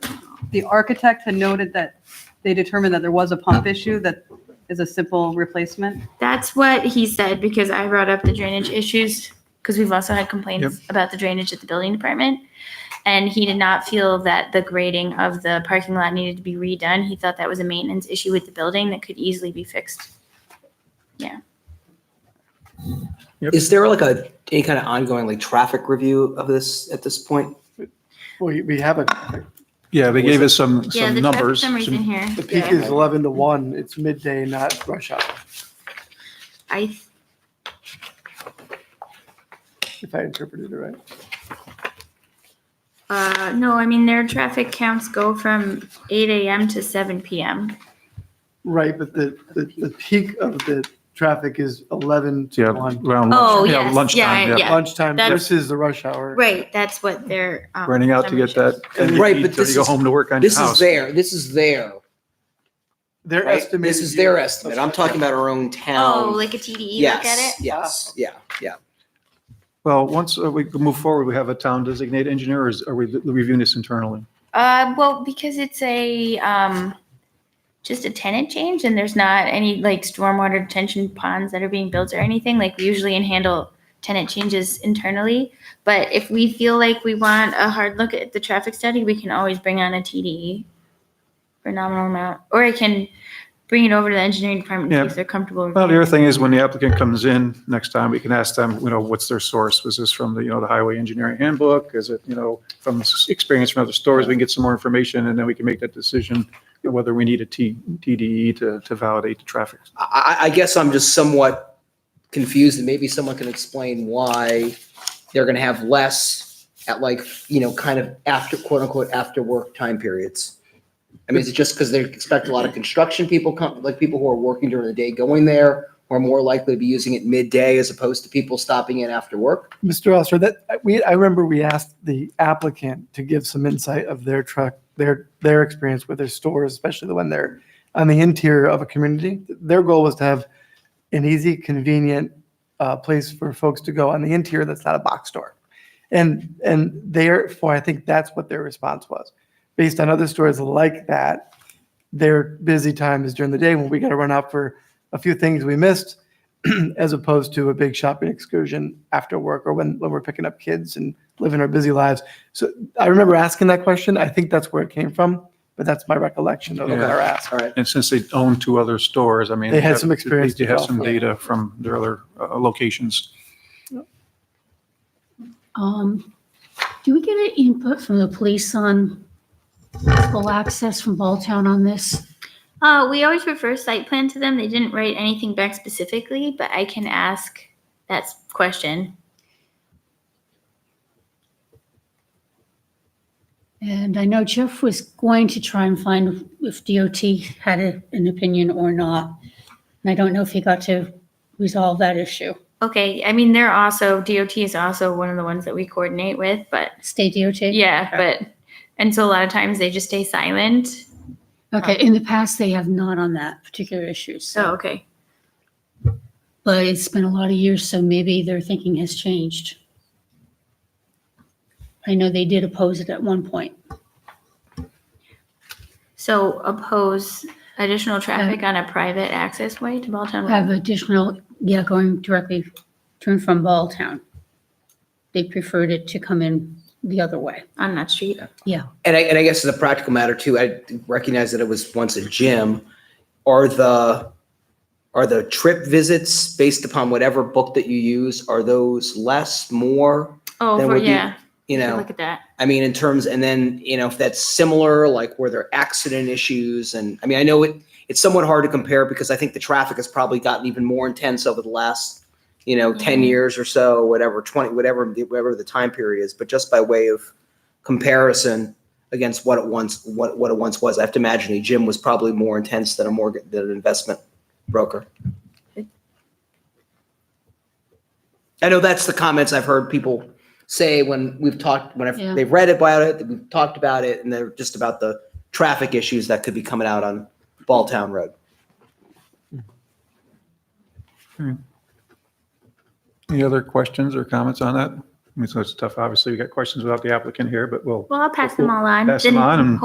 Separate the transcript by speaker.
Speaker 1: the architect had noted that they determined that there was a pump issue that is a simple replacement.
Speaker 2: That's what he said because I brought up the drainage issues because we've also had complaints about the drainage at the building department. And he did not feel that the grading of the parking lot needed to be redone. He thought that was a maintenance issue with the building that could easily be fixed.
Speaker 3: Is there like a, any kind of ongoing like traffic review of this at this point?
Speaker 4: We, we have it.
Speaker 5: Yeah, they gave us some,
Speaker 2: yeah,
Speaker 5: some
Speaker 2: the traffic
Speaker 5: numbers.
Speaker 2: summary's
Speaker 5: some-
Speaker 2: in here.
Speaker 4: The peak is 11 to 1. It's midday, not rush hour,
Speaker 2: I th-
Speaker 4: if I interpreted it right.
Speaker 2: uh, no, I mean their traffic counts go from 8 a.m. to 7 p.m.
Speaker 4: Right, but the, the, the peak of the traffic is 11
Speaker 5: Yeah,
Speaker 4: to 1.
Speaker 5: around
Speaker 2: Oh,
Speaker 5: lunch, yeah,
Speaker 2: yes.
Speaker 5: lunchtime,
Speaker 2: Yeah,
Speaker 5: yeah.
Speaker 2: yeah.
Speaker 4: Lunchtime
Speaker 2: That's-
Speaker 4: versus the rush hour.
Speaker 2: Right, that's what they're um,
Speaker 5: Running out to
Speaker 2: summary
Speaker 5: get that.
Speaker 4: And
Speaker 5: and you
Speaker 3: right,
Speaker 5: eat
Speaker 3: but
Speaker 5: till
Speaker 3: this
Speaker 5: You go
Speaker 3: is-
Speaker 5: home to work on your
Speaker 3: This is
Speaker 5: house.
Speaker 3: their, this is their,
Speaker 4: Their
Speaker 3: right?
Speaker 4: estimate.
Speaker 3: This is their estimate. I'm talking about our own town.
Speaker 2: shows. Oh, like a TDE look at it?
Speaker 3: Yes, yes, yeah, yeah.
Speaker 5: Well, once uh, we move forward, we have a town designated engineer, or is- are we reviewing this internally?
Speaker 2: Uh, well, because it's a, um, just a tenant change and there's not any like stormwater detention ponds that are being built or anything, like we usually in handle tenant changes internally. But if we feel like we want a hard look at the traffic study, we can always bring on a TDE for nominal amount, or I can bring it over to the engineering department
Speaker 5: Yeah.
Speaker 2: if they're comfortable.
Speaker 5: Well, the
Speaker 2: reviewing
Speaker 5: other thing
Speaker 2: it.
Speaker 5: is when the applicant comes in next time, we can ask them, you know, what's their source? Was this from the, you know, the highway engineering handbook? Is it, you know, from s- experience from other stores? We can get some more information and then we can make that decision whether we need a T, TDE to, to validate the traffic.
Speaker 3: I, I, I guess I'm just somewhat confused and maybe someone can explain why they're gonna have less at like, you know, kind of after, quote unquote, after work time periods. I mean, is it just because they expect a lot of construction people come, like people who are working during the day going there? Or more likely to be using it midday as opposed to people stopping in after work?
Speaker 4: Mr. Oster, that, we, I remember we asked the applicant to give some insight of their truck, their, their experience with their stores, especially the one they're on the interior of a community. Their goal was to have an easy, convenient uh, place for folks to go on the interior that's not a box store. And, and therefore, I think that's what their response was. Based on other stores like that, their busy time is during the day when we got to run out for a few things we missed as opposed to a big shopping excursion after work or when, when we're picking up kids and living our busy lives. So I remember asking that question. I think that's where it came from, but that's my recollection of
Speaker 5: Yeah.
Speaker 4: our ask.
Speaker 3: All right.
Speaker 5: And since they own two other stores, I mean.
Speaker 4: They had some experience
Speaker 5: They
Speaker 4: to
Speaker 5: have
Speaker 4: draw
Speaker 5: some
Speaker 4: from.
Speaker 5: data from their other uh, locations.
Speaker 6: Um, do we get any input from the police on possible access from Balltown on this?
Speaker 2: Uh, we always refer site plan to them. They didn't write anything back specifically, but I can ask that s- question.
Speaker 6: And I know Jeff was going to try and find if DOT had a- an opinion or not. And I don't know if he got to resolve that issue.
Speaker 2: Okay, I mean, they're also, DOT is also one of the ones that we coordinate with, but
Speaker 6: State DOT?
Speaker 2: yeah, but, and so a lot of times they just stay silent.
Speaker 6: Okay, in the past, they have not on that particular issue,
Speaker 2: Oh,
Speaker 6: so,
Speaker 2: okay.
Speaker 6: but it's been a lot of years, so maybe their thinking has changed. I know they did oppose it at one point.
Speaker 2: So oppose additional traffic on a private access way to Balltown Road?
Speaker 6: have additional, yeah, going directly to and from Balltown. They preferred it to come in the other way.
Speaker 2: on that street?
Speaker 6: Yeah.
Speaker 3: And I, and I guess as a practical matter too, I recognize that it was once a gym. Are the, are the trip visits based upon whatever book that you use, are those less, more?
Speaker 2: Oh,
Speaker 3: That
Speaker 2: for,
Speaker 3: would be,
Speaker 2: yeah,
Speaker 3: You know,
Speaker 2: look at that.
Speaker 3: I mean, in terms, and then, you know, if that's similar, like were there accident issues? And I mean, I know it, it's somewhat hard to compare because I think the traffic has probably gotten even more intense over the last, you know, 10
Speaker 2: Yeah.
Speaker 3: years or so, whatever, 20, whatever, the- whatever the time period is, but just by way of comparison against what it once, what, what it once was. I have to imagine a gym was probably more intense than a mortgage, than an investment broker. I know that's the comments I've heard people say when we've talked, when I've,
Speaker 6: Yeah.
Speaker 3: they've read about it, we've talked about it, and they're just about the traffic issues that could be coming out on Balltown Road.
Speaker 5: Any other questions or comments on that? I mean, so it's tough, obviously, we got questions without the applicant here, but we'll
Speaker 2: Well, I'll pass them all on.
Speaker 5: pass them
Speaker 2: Then
Speaker 5: on and